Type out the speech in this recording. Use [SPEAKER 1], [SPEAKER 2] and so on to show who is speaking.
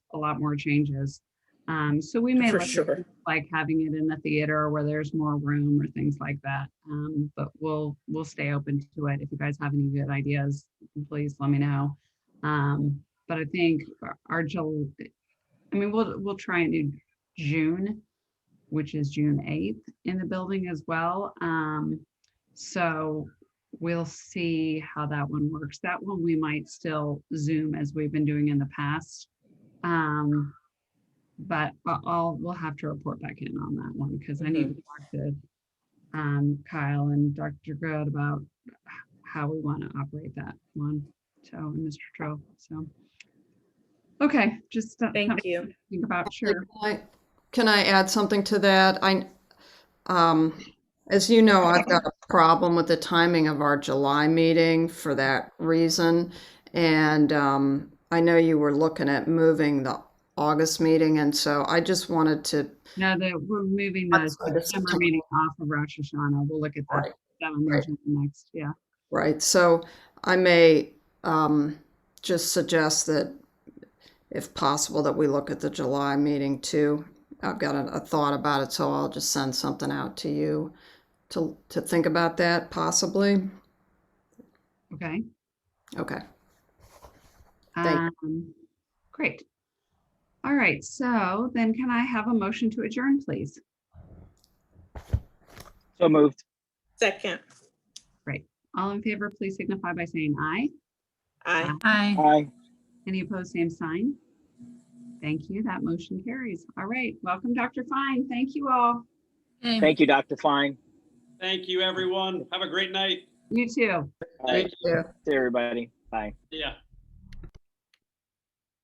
[SPEAKER 1] a lot more changes. Um, so we may
[SPEAKER 2] For
[SPEAKER 1] look at
[SPEAKER 2] sure.
[SPEAKER 1] things like having it in the theater where there's more room or things like that. Um, but we'll, we'll stay open to it. If you guys have any good ideas, please let me know. Um, but I think our- our Jul, I mean, we'll, we'll try and do June, which is June eighth in the building as well. Um, so we'll see how that one works. That one we might still Zoom as we've been doing in the past. Um, but I- I'll, we'll have to report back in on that one because I need to talk to um, Kyle and Dr. Good about h- how we want to operate that one. So, and Mr. Tro, so. Okay, just. uh,
[SPEAKER 2] Thank
[SPEAKER 1] something
[SPEAKER 2] you.
[SPEAKER 1] to Think about, sure.
[SPEAKER 3] I- Can I add something to that? I, um, as you know, I've got a problem with the timing of our July meeting for that reason. And, um, I know you were looking at moving the August meeting, and so I just wanted to,
[SPEAKER 1] Now that we're moving the
[SPEAKER 3] Outside of
[SPEAKER 1] September
[SPEAKER 3] September.
[SPEAKER 1] meeting off of Rosh Hashanah, we'll look at that.
[SPEAKER 3] Right.
[SPEAKER 1] That one
[SPEAKER 3] Right.
[SPEAKER 1] mentioned next, yeah.
[SPEAKER 3] right, so I may, um, just suggest that if possible, that we look at the July meeting too. I've got a, a thought about it, so I'll just send something out to you to, to think about that possibly.
[SPEAKER 1] Okay.
[SPEAKER 3] Okay. Thank
[SPEAKER 1] Um, great. All right, so then can I have a motion to adjourn, please?
[SPEAKER 4] So moved.
[SPEAKER 2] Second.
[SPEAKER 1] All in favor, please signify by saying aye.
[SPEAKER 2] Aye.
[SPEAKER 5] Aye.
[SPEAKER 4] Aye.
[SPEAKER 1] Any opposed, same sign? Thank you. That motion carries. All right, welcome, Dr. Fine. Thank you all.
[SPEAKER 5] Okay.
[SPEAKER 4] Thank you, Dr. Fine.
[SPEAKER 6] Thank you, everyone. Have a great night.
[SPEAKER 1] You too.
[SPEAKER 4] Thank
[SPEAKER 3] you.
[SPEAKER 4] everybody. Bye.
[SPEAKER 6] Yeah.